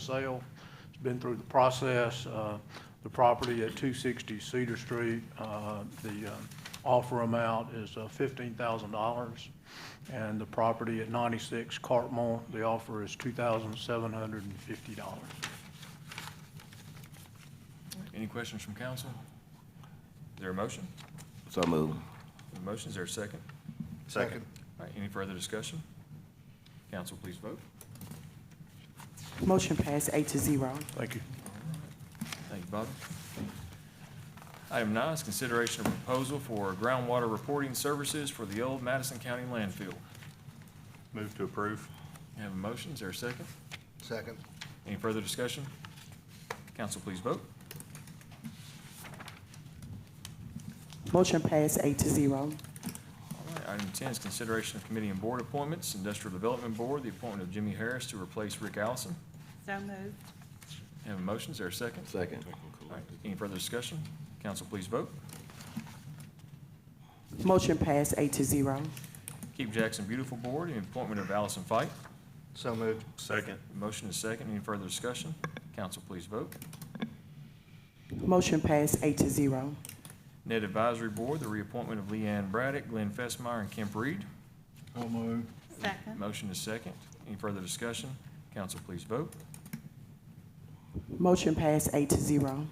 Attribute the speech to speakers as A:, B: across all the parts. A: sale. It's been through the process. Uh, The property at 260 Cedar Street, uh, the uh, offer amount is uh, $15,000. And the property at 96 Cartmore, the offer is $2,750.
B: Any questions from council? Is there a motion?
C: So move.
B: A motion, is there a second?
C: Second.
B: All right, any further discussion? Council, please vote.
D: Motion passed eight to zero.
A: Thank you.
B: Thank you, Bobby. Item nine is consideration of proposal for groundwater reporting services for the old Madison County landfill.
E: Move to approve.
B: We Have a motion, is there a second?
C: Second.
B: Any further discussion? Council, please vote.
D: Motion passed eight to zero.
B: All right, Item 10 is consideration of committee and board appointments. Industrial Development Board, the appointment of Jimmy Harris to replace Rick Allison.
F: So moved.
B: Have a motion, is there a second?
C: Second.
B: All right, Any further discussion? Council, please vote.
D: Motion passed eight to zero.
B: Keep Jackson Beautiful Board, the appointment of Allison Fike.
C: So moved.
E: Second.
B: Motion is second. Any further discussion? Council, please vote.
D: Motion passed eight to zero.
B: Net Advisory Board, the reappointment of Leanne Braddock, Glenn Fessmeyer, and Kemp Reed.
C: So moved.
F: Second.
B: Motion is second. Any further discussion? Council, please vote.
D: Motion passed eight to zero.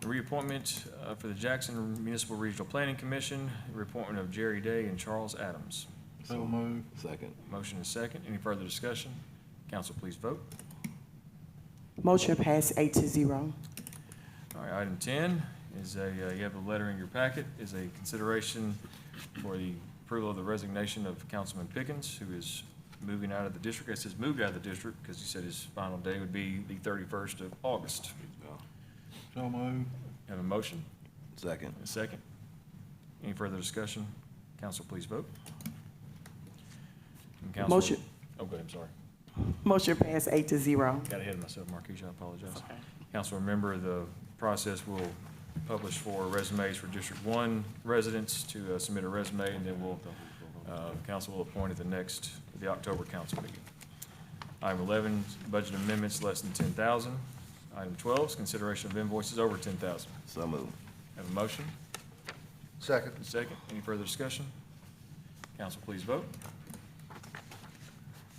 B: The Reappointment uh, for the Jackson Municipal Regional Planning Commission, the reappointment of Jerry Day and Charles Adams.
C: So moved. Second.
B: Motion is second. Any further discussion? Council, please vote.
D: Motion passed eight to zero.
B: All right, item ten is a, uh, you have a letter in your packet, is a consideration for the approval of the resignation of Councilman Pickens, who is moving out of the district. It says moved out of the district because he said his final day would be the thirty-first of August.
C: So moved.
B: Have a motion,
C: Second.
B: and a second. Any further discussion? Council, please vote. And Council-
D: Motion.
B: Oh, go ahead, I'm sorry.
D: Motion passed eight to zero.
B: Got ahead of myself, Marquise, I apologize. Council, remember, the process will publish for resumes for District One residents to uh, submit a resume, and then we'll, uh, council will appoint at the next, the October council meeting. Item eleven, budget amendments less than ten thousand. Item twelve is consideration of invoices over ten thousand.
C: So moved.
B: Have a motion?
C: Second.
B: Second. Any further discussion? Council, please vote.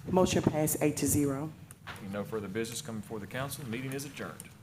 D: Motion passed eight to zero.
B: Any No further business coming before the council. Meeting is adjourned.